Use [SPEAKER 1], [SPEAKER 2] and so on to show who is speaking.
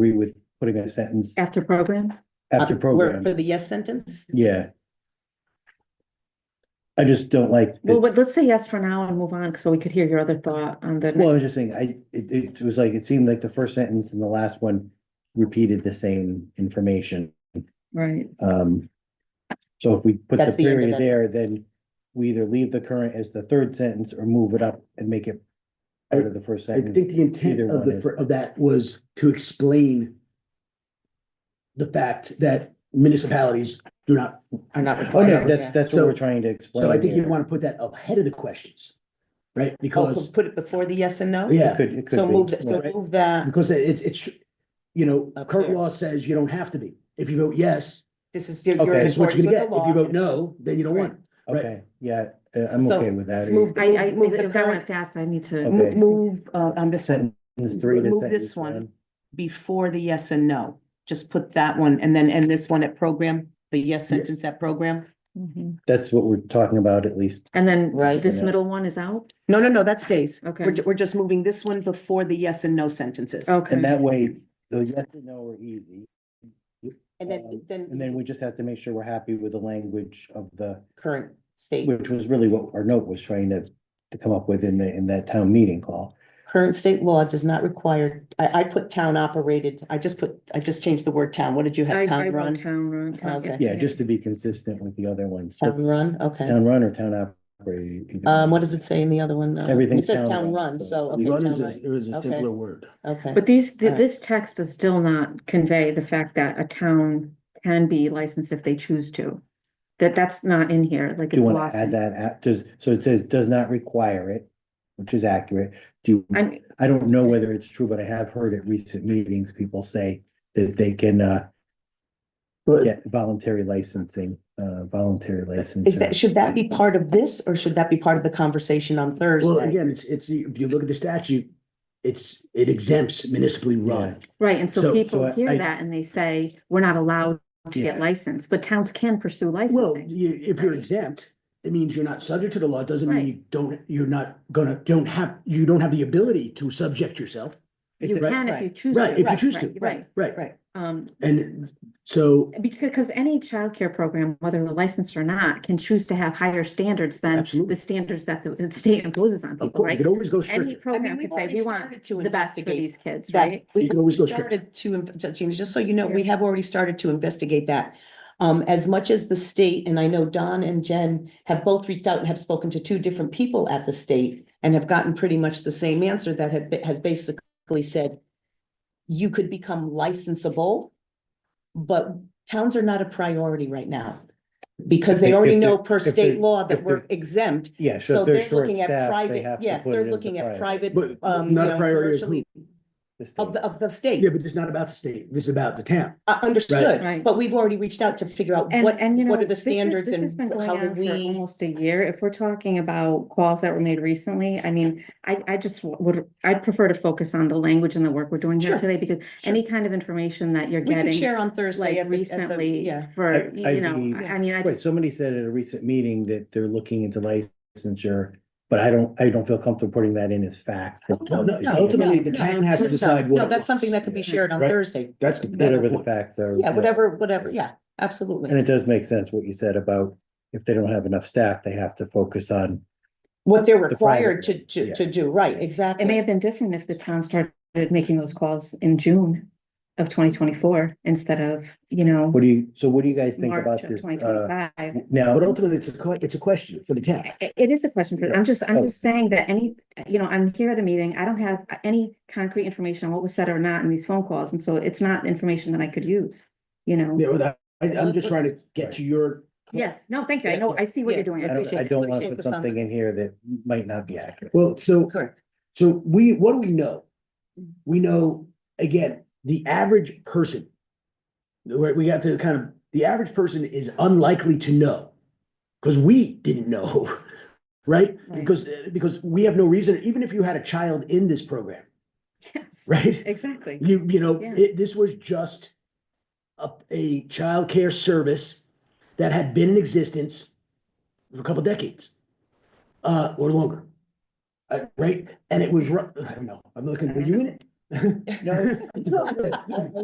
[SPEAKER 1] agree with putting a sentence
[SPEAKER 2] after program?
[SPEAKER 1] after
[SPEAKER 3] Uh, where-
[SPEAKER 1] program,
[SPEAKER 3] For the yes sentence?
[SPEAKER 1] yeah. I just don't like, the-
[SPEAKER 2] Well, but let's say yes for now and move on, so we could hear your other thought on the.
[SPEAKER 1] well, I
[SPEAKER 2] next-
[SPEAKER 1] was just saying, I, it, it was like, it seemed like the first sentence and the last one repeated the same information.
[SPEAKER 2] Right,
[SPEAKER 1] Um, so if we put the
[SPEAKER 3] That's the end of
[SPEAKER 1] period
[SPEAKER 3] that
[SPEAKER 1] there, then we either leave the current as the third sentence or move it up and make it part of the first
[SPEAKER 4] I
[SPEAKER 1] sentence.
[SPEAKER 4] think the intent
[SPEAKER 1] Either
[SPEAKER 4] of
[SPEAKER 1] one
[SPEAKER 4] the,
[SPEAKER 1] is-
[SPEAKER 4] fir- of that was to explain the fact that municipalities do not,
[SPEAKER 3] Are not
[SPEAKER 1] Oh, no,
[SPEAKER 3] required.
[SPEAKER 1] that's,
[SPEAKER 3] yeah.
[SPEAKER 1] that's what
[SPEAKER 4] So-
[SPEAKER 1] we're trying to explain.
[SPEAKER 4] so I think you
[SPEAKER 1] here.
[SPEAKER 4] want to put that ahead of the questions, right?
[SPEAKER 3] Oh,
[SPEAKER 4] Because,
[SPEAKER 3] put- Put it before the yes and no?
[SPEAKER 1] It
[SPEAKER 4] yeah,
[SPEAKER 1] could, it could
[SPEAKER 3] So
[SPEAKER 1] be,
[SPEAKER 3] move, th-
[SPEAKER 1] yeah.
[SPEAKER 3] so move that,
[SPEAKER 4] because it's, it's, you know,
[SPEAKER 3] Up
[SPEAKER 4] current
[SPEAKER 3] there.
[SPEAKER 4] law says you don't have to be. If you vote yes,
[SPEAKER 3] this is your,
[SPEAKER 1] Okay.
[SPEAKER 3] your
[SPEAKER 4] that's what
[SPEAKER 3] accordance
[SPEAKER 4] you're
[SPEAKER 3] with
[SPEAKER 4] gonna
[SPEAKER 3] the
[SPEAKER 4] get. If you vote
[SPEAKER 3] law.
[SPEAKER 4] no, then you don't want it. right.
[SPEAKER 1] Okay, yeah, uh, I'm
[SPEAKER 3] So,
[SPEAKER 1] okay with that.
[SPEAKER 3] Move, the-
[SPEAKER 2] I, I,
[SPEAKER 3] move the
[SPEAKER 2] if that went
[SPEAKER 3] current, Oh.
[SPEAKER 2] fast, I need to,
[SPEAKER 1] Okay.
[SPEAKER 3] mo- move, uh, on this one,
[SPEAKER 1] Sentence three to
[SPEAKER 3] Move
[SPEAKER 1] sentence
[SPEAKER 3] this one. before the yes and no. Just put that one and then end this one at program, the yes sentence at program.
[SPEAKER 2] Mhm.
[SPEAKER 1] That's what we're talking about at least.
[SPEAKER 2] and then
[SPEAKER 3] Right.
[SPEAKER 2] this
[SPEAKER 1] Yeah.
[SPEAKER 2] middle one is out?
[SPEAKER 3] No, no, no, that stays.
[SPEAKER 2] Okay.
[SPEAKER 3] We're, ju- we're just moving this one before the yes and no sentences.
[SPEAKER 1] And
[SPEAKER 2] Okay,
[SPEAKER 1] that way, the yes and no are easy.
[SPEAKER 3] And
[SPEAKER 1] Um,
[SPEAKER 3] then, then.
[SPEAKER 1] And then we just have to make sure we're happy with the language of the,
[SPEAKER 3] Current state,
[SPEAKER 1] which was really what our note was trying to, to come up with in the, in that town meeting call.
[SPEAKER 3] current state law does not require, I, I put town operated, I just put, I just changed the word town. What did you
[SPEAKER 2] I,
[SPEAKER 3] have?
[SPEAKER 2] I
[SPEAKER 3] Town
[SPEAKER 2] wrote
[SPEAKER 3] run?
[SPEAKER 2] town run. town-
[SPEAKER 3] Okay.
[SPEAKER 1] Yeah, just to be consistent with the other ones. So
[SPEAKER 3] Town run, okay.
[SPEAKER 1] Town run or town operated. either one.
[SPEAKER 3] Um, what does it say in the other one? though?
[SPEAKER 1] Everything's
[SPEAKER 3] It says
[SPEAKER 1] town
[SPEAKER 3] town
[SPEAKER 1] run,
[SPEAKER 3] run,
[SPEAKER 1] so
[SPEAKER 3] so, okay,
[SPEAKER 1] you
[SPEAKER 4] Run
[SPEAKER 3] town
[SPEAKER 4] is, a-
[SPEAKER 3] run,
[SPEAKER 4] is a
[SPEAKER 3] Okay.
[SPEAKER 4] simpler word.
[SPEAKER 3] okay.
[SPEAKER 2] But these, th-
[SPEAKER 3] Alright.
[SPEAKER 2] this text does still not convey the fact that a town can be licensed if they choose to. That, that's not in here, like
[SPEAKER 1] Do you
[SPEAKER 2] it's
[SPEAKER 1] want
[SPEAKER 2] lost.
[SPEAKER 1] to add
[SPEAKER 2] in-
[SPEAKER 1] that, at- does, so it says does not require it, which is accurate. Do, you-
[SPEAKER 2] I'm,
[SPEAKER 1] I don't know whether it's true, but I have heard at recent meetings, people say that they can, uh,
[SPEAKER 4] But
[SPEAKER 1] get voluntary licensing, uh, voluntary licensing.
[SPEAKER 3] Is that, should that be part of this or should that be part of the conversation on
[SPEAKER 4] Well,
[SPEAKER 3] Thursday?
[SPEAKER 4] again, it's, it's, if you look at the statute, it's, it exempts municipally run.
[SPEAKER 2] right, and so
[SPEAKER 4] So-
[SPEAKER 1] so
[SPEAKER 2] people
[SPEAKER 1] I-
[SPEAKER 2] hear
[SPEAKER 1] I-
[SPEAKER 2] that and they say, we're not allowed to get
[SPEAKER 4] Yeah.
[SPEAKER 2] licensed, but towns can pursue
[SPEAKER 4] Well,
[SPEAKER 2] licensing.
[SPEAKER 4] you, if you're
[SPEAKER 2] right?
[SPEAKER 4] exempt, it means you're not subject to the law, It doesn't mean
[SPEAKER 2] Right.
[SPEAKER 4] you don't, you're not gonna, don't have, you don't have the ability to subject yourself.
[SPEAKER 2] You
[SPEAKER 4] right,
[SPEAKER 2] can if
[SPEAKER 3] right.
[SPEAKER 2] you choose.
[SPEAKER 4] Right,
[SPEAKER 2] to,
[SPEAKER 4] if you
[SPEAKER 2] right,
[SPEAKER 4] choose
[SPEAKER 2] right,
[SPEAKER 4] to,
[SPEAKER 2] Right,
[SPEAKER 4] Right,
[SPEAKER 3] Right.
[SPEAKER 2] um,
[SPEAKER 4] and so,
[SPEAKER 2] because any childcare program, whether they're licensed or not, can choose to have higher standards than
[SPEAKER 4] Absolutely.
[SPEAKER 2] the standards that the the state imposes on
[SPEAKER 4] of
[SPEAKER 2] people,
[SPEAKER 4] course, you
[SPEAKER 2] right?
[SPEAKER 4] could always go
[SPEAKER 2] Any
[SPEAKER 4] stricter.
[SPEAKER 3] I
[SPEAKER 2] program
[SPEAKER 3] mean, we've
[SPEAKER 2] could say,
[SPEAKER 3] already
[SPEAKER 2] we want
[SPEAKER 3] started to
[SPEAKER 2] the best for
[SPEAKER 3] investigate
[SPEAKER 2] these kids,
[SPEAKER 3] that.
[SPEAKER 2] right?
[SPEAKER 3] We
[SPEAKER 4] You can always go stricter.
[SPEAKER 3] started to, inv- ju- Gina, just so you know, we have already started to investigate that. Um, as much as the state, and I know Don and Jen have both reached out and have spoken to two different people at the state and have gotten pretty much the same answer that had, has basically said, you could become licensable, but towns are not a priority right now because they
[SPEAKER 1] If-
[SPEAKER 3] already
[SPEAKER 1] if
[SPEAKER 3] know
[SPEAKER 1] they're-
[SPEAKER 3] per
[SPEAKER 1] if they're-
[SPEAKER 3] state law
[SPEAKER 1] if
[SPEAKER 3] that we're
[SPEAKER 1] they're-
[SPEAKER 3] exempt
[SPEAKER 1] Yeah, so
[SPEAKER 3] so
[SPEAKER 1] if
[SPEAKER 3] they're
[SPEAKER 1] they're short
[SPEAKER 3] looking at
[SPEAKER 1] staffed, they have
[SPEAKER 3] private,
[SPEAKER 1] to
[SPEAKER 3] yeah,
[SPEAKER 1] put it
[SPEAKER 3] they're
[SPEAKER 1] as a
[SPEAKER 3] looking at private,
[SPEAKER 4] But
[SPEAKER 3] um, you
[SPEAKER 4] not a
[SPEAKER 3] know,
[SPEAKER 4] priority of
[SPEAKER 3] commercially,
[SPEAKER 1] the state.
[SPEAKER 3] of the, of the
[SPEAKER 4] Yeah,
[SPEAKER 3] state.
[SPEAKER 4] but it's not about the state, this is about the town.
[SPEAKER 3] Uh, understood,
[SPEAKER 2] Right.
[SPEAKER 3] but we've already reached out to figure out
[SPEAKER 2] And,
[SPEAKER 3] what,
[SPEAKER 2] and you know.
[SPEAKER 3] what are the
[SPEAKER 2] this is-
[SPEAKER 3] standards
[SPEAKER 2] this has been
[SPEAKER 3] and
[SPEAKER 2] going
[SPEAKER 3] how do
[SPEAKER 2] on for
[SPEAKER 3] we?
[SPEAKER 2] Almost a year. If we're talking about calls that were made recently, I mean, I, I just w- would, I'd prefer to focus on the language and the work we're doing here
[SPEAKER 3] Sure,
[SPEAKER 2] today because
[SPEAKER 3] sure.
[SPEAKER 2] any kind of information that you're
[SPEAKER 3] We can
[SPEAKER 2] getting,
[SPEAKER 3] share on Thursday.
[SPEAKER 2] like
[SPEAKER 3] at the- at the-
[SPEAKER 2] recently
[SPEAKER 3] Yeah,
[SPEAKER 2] for,
[SPEAKER 1] I-
[SPEAKER 2] you
[SPEAKER 1] I'd
[SPEAKER 2] you know,
[SPEAKER 1] be-
[SPEAKER 2] I I mean, I
[SPEAKER 1] Right,
[SPEAKER 2] just,
[SPEAKER 1] somebody said at a recent meeting that they're looking into licensure, but I don't, I don't feel comfortable putting that in as fact.
[SPEAKER 3] Oh, No, no, no,
[SPEAKER 4] Ultimately,
[SPEAKER 3] no,
[SPEAKER 4] the
[SPEAKER 3] no,
[SPEAKER 4] town has to
[SPEAKER 3] no,
[SPEAKER 4] decide what
[SPEAKER 3] No,
[SPEAKER 4] it
[SPEAKER 3] that's something that
[SPEAKER 4] wants.
[SPEAKER 3] could be shared on
[SPEAKER 4] Right.
[SPEAKER 3] Thursday.
[SPEAKER 4] That's the, that's
[SPEAKER 1] Whatever
[SPEAKER 4] the
[SPEAKER 1] the
[SPEAKER 4] point.
[SPEAKER 1] facts are.
[SPEAKER 3] Yeah, whatever, whatever, yeah, absolutely.
[SPEAKER 1] And it does make sense what you said about if they don't have enough staff, they have to focus on,
[SPEAKER 3] What they're
[SPEAKER 1] the private
[SPEAKER 3] required to,
[SPEAKER 1] one, yeah.
[SPEAKER 3] to, to do, right, exactly.
[SPEAKER 2] it may have been different if the town started making those calls in June of twenty twenty-four instead of, you know,
[SPEAKER 1] what do you, so what do you guys think about
[SPEAKER 2] March of
[SPEAKER 1] this?
[SPEAKER 2] twenty
[SPEAKER 1] uh,
[SPEAKER 2] twenty-five.
[SPEAKER 1] Now,
[SPEAKER 4] But ultimately, it's a, que- it's a question for the town.
[SPEAKER 2] I- It is a question for, I'm just, I'm
[SPEAKER 1] Oh.
[SPEAKER 2] just saying that any, you know, I'm here at a meeting, I don't have any concrete information on what was said or not in these phone calls, and so it's not information that I could use, you know?
[SPEAKER 4] Yeah, but I, I- I'm just trying to get to your.
[SPEAKER 2] Yes, no, thank you, I
[SPEAKER 4] Yeah,
[SPEAKER 2] know, I see what
[SPEAKER 3] yeah.
[SPEAKER 2] you're doing, I
[SPEAKER 1] I don't,
[SPEAKER 2] appreciate
[SPEAKER 1] I
[SPEAKER 2] it.
[SPEAKER 1] don't want to
[SPEAKER 3] Let's
[SPEAKER 1] put
[SPEAKER 3] focus on-
[SPEAKER 1] something in here that might not be accurate.
[SPEAKER 4] Well, so,
[SPEAKER 3] Correct.
[SPEAKER 4] so we, what do we know? We know, again, the average person. Where we have to kind of, the average person is unlikely to know. Because we didn't know, right?
[SPEAKER 2] Right.
[SPEAKER 4] Because, eh, because we have no reason, even if you had a child in this program,
[SPEAKER 2] Yes,
[SPEAKER 4] right?
[SPEAKER 2] Exactly,
[SPEAKER 4] You, you know,
[SPEAKER 2] Yeah.
[SPEAKER 4] it, this was just a, a childcare service that had been in existence for a couple decades, uh, or longer. Uh, right? And it was, ru- I don't know, I'm looking, were you in it?
[SPEAKER 3] No, it's-